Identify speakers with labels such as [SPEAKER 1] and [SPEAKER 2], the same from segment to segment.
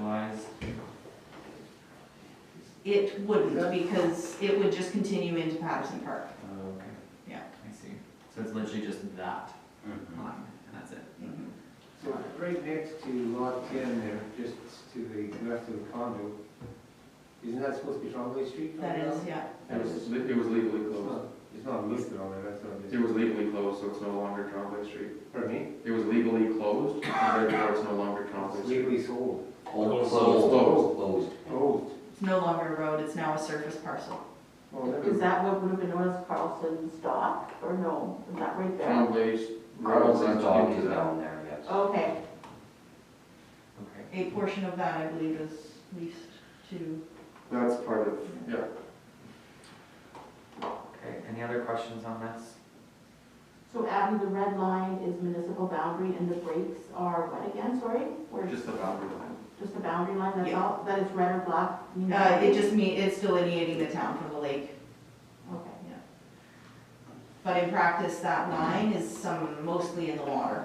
[SPEAKER 1] conceptualized?
[SPEAKER 2] It wouldn't, because it would just continue into Patterson Park.
[SPEAKER 1] Oh, okay.
[SPEAKER 2] Yeah.
[SPEAKER 1] I see. So it's literally just that
[SPEAKER 3] Mhm.
[SPEAKER 1] line, and that's it.
[SPEAKER 4] So right next to lot ten there, just to the left of the condo, isn't that supposed to be Trombley Street?
[SPEAKER 2] That is, yeah.
[SPEAKER 3] It was, li- it was legally
[SPEAKER 4] It's
[SPEAKER 3] closed.
[SPEAKER 4] not, it's not listed on there, that's what I'm
[SPEAKER 3] It was legally closed, so it's no longer Trombley Street.
[SPEAKER 4] just, pardon me,
[SPEAKER 3] It was legally closed, and therefore it's no longer Trombley
[SPEAKER 4] it's
[SPEAKER 3] Street.
[SPEAKER 4] legally sold,
[SPEAKER 5] Closed.
[SPEAKER 3] Closed.
[SPEAKER 5] Closed.
[SPEAKER 4] closed.
[SPEAKER 2] It's no longer a road, it's now a surface parcel.
[SPEAKER 4] Oh, never-
[SPEAKER 6] Is that what would have been known as Carlson's dock, or no, is that right there?
[SPEAKER 3] Trombley's.
[SPEAKER 5] Carlson's dog is
[SPEAKER 3] into that.
[SPEAKER 5] down there, yes.
[SPEAKER 6] Okay,
[SPEAKER 1] Okay.
[SPEAKER 2] A portion of that, I believe, is leased to,
[SPEAKER 3] That's part of, yeah.
[SPEAKER 1] Okay, any other questions on this?
[SPEAKER 6] so Abby, the red line is municipal boundary and the breaks are what again, sorry? Or
[SPEAKER 3] Just the boundary line.
[SPEAKER 6] just the boundary line, that's
[SPEAKER 2] Yeah.
[SPEAKER 6] all, that is red or black? you know?
[SPEAKER 2] uh, it just mean, it's delineating the town from the lake.
[SPEAKER 6] Okay,
[SPEAKER 2] But in practice, that line is some, mostly in the water.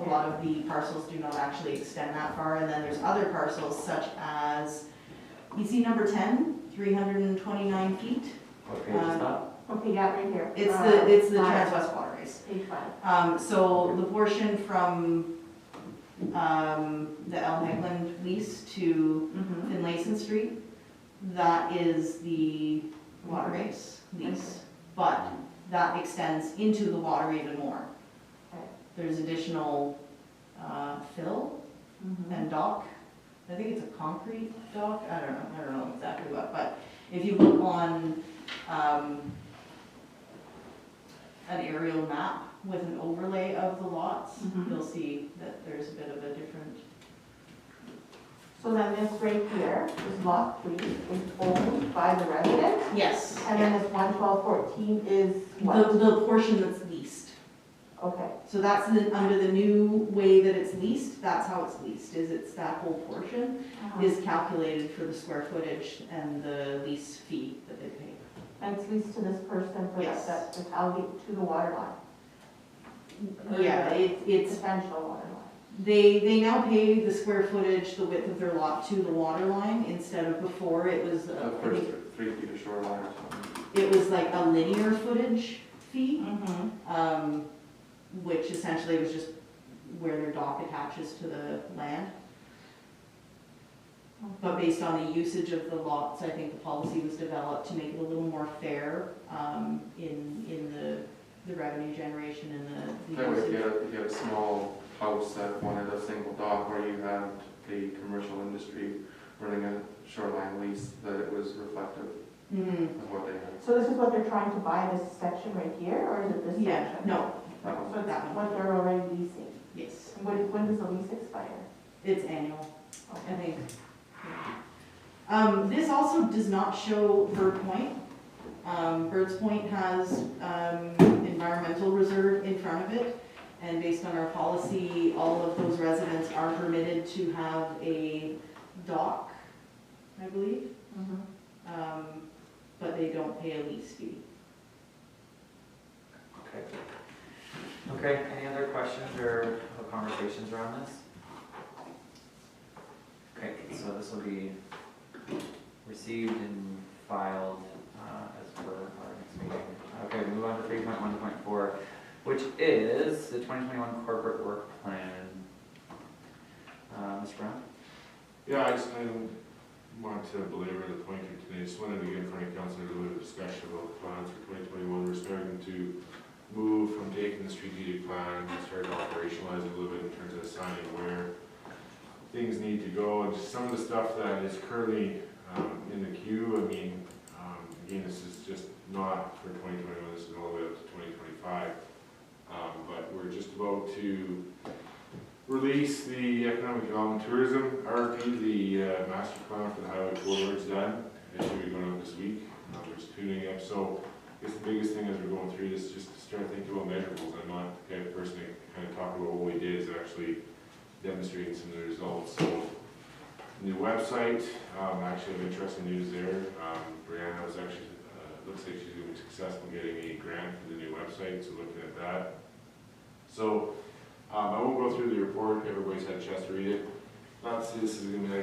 [SPEAKER 2] A lot of the parcels do not actually extend that far, and then there's other parcels such as, you see number 10, 329 feet?
[SPEAKER 1] What page is
[SPEAKER 2] Um,
[SPEAKER 1] that?
[SPEAKER 6] okay, yeah, right here.
[SPEAKER 2] It's
[SPEAKER 6] Uh,
[SPEAKER 2] the, it's the
[SPEAKER 6] five,
[SPEAKER 2] Transwest Waterways.
[SPEAKER 6] Page five.
[SPEAKER 2] Um, so the portion from, um, the El Hagland lease to
[SPEAKER 6] Mhm.
[SPEAKER 2] Finlayson Street, that is the waterways lease. But that extends into the water even more.
[SPEAKER 6] Okay.
[SPEAKER 2] There's additional, uh, fill
[SPEAKER 6] Mhm.
[SPEAKER 2] and dock. I think it's a concrete dock, I don't know, I don't know exactly what, but if you look on, um, an aerial map with an overlay of the lots,
[SPEAKER 6] Mhm.
[SPEAKER 2] you'll see that there's a bit of a different,
[SPEAKER 6] So then this right here is lot three, is owned by the resident,
[SPEAKER 2] yes.
[SPEAKER 6] and then this one twelve fourteen is
[SPEAKER 2] The,
[SPEAKER 6] what?
[SPEAKER 2] the portion that's leased.
[SPEAKER 6] Okay.
[SPEAKER 2] So that's the, under the new way that it's leased, that's how it's leased, is it's that whole portion is calculated for the square footage and the lease fee that they pay.
[SPEAKER 6] And it's leased to this person for
[SPEAKER 2] Yes.
[SPEAKER 6] that, that, to allocate to the water line.
[SPEAKER 2] Yeah, it, it's
[SPEAKER 6] Essential water line.
[SPEAKER 2] They, they now pay the square footage, the width of their lot to the water line instead of before it was,
[SPEAKER 3] The
[SPEAKER 2] uh, I
[SPEAKER 3] first
[SPEAKER 2] think
[SPEAKER 3] three feet of shoreline or something.
[SPEAKER 2] it was like a linear footage fee,
[SPEAKER 6] Mm-hmm.
[SPEAKER 2] um, which essentially was just where their dock attaches to the land. But based on the usage of the lots, I think the policy was developed to make it a little more fair, um, in, in the, the revenue generation and the-
[SPEAKER 3] That way,
[SPEAKER 2] the
[SPEAKER 3] if you
[SPEAKER 2] usage.
[SPEAKER 3] had, if you had a small house that wanted a single dock, or you had the commercial industry running a shoreline lease, that it was reflective
[SPEAKER 2] Mhm.
[SPEAKER 3] of what they had.
[SPEAKER 6] So this is what they're trying to buy, this section right here, or is it this section?
[SPEAKER 2] yeah, no,
[SPEAKER 6] So it's
[SPEAKER 2] That one.
[SPEAKER 6] what they're already leasing.
[SPEAKER 2] yes,
[SPEAKER 6] And When, when does the lease expire?
[SPEAKER 2] it's annual. I
[SPEAKER 6] Okay.
[SPEAKER 2] think. Um, this also does not show Bird Point. Um, Bird's Point has, um, environmental reserve in front of it. And based on our policy, all of those residents are permitted to have a dock, I believe.
[SPEAKER 6] Mhm.
[SPEAKER 2] Um, but they don't pay a lease fee.
[SPEAKER 1] Okay. Okay, any other questions or conversations around this? Okay, so this will be received and filed uh, as per our next meeting. Okay, move on to three point one point four, which is the twenty twenty-one corporate work plan. Uh, Mr. Brown?
[SPEAKER 7] Yeah, I just, I don't want to belabor the point here today, just wanted to get in front of council, and do a little discussion about the plans for twenty twenty-one, we're starting to move from taking the strategic plan, and start to operationalize it a little bit in terms of assigning where things need to go, and just some of the stuff that is currently, um, in the queue, I mean, um, again, this is just not for twenty twenty-one, this is all the way up to twenty twenty-five. Um, but we're just about to release the economic development tourism RFP, the uh, master plan for the highway corridor's done. It should be going out this week, uh, we're just tuning up, so I guess the biggest thing as we're going through this, just to start thinking about measurables. I'm not the kind of person to kind of talk about what we did, is actually demonstrating some of the results, so. New website, um, actually have interesting news there, um, Brianna was actually, uh, looks like she's gonna be successful getting a grant for the new website, so looking at that. So, um, I won't go through the report, everybody's had a chance to read it. Not, this is gonna be like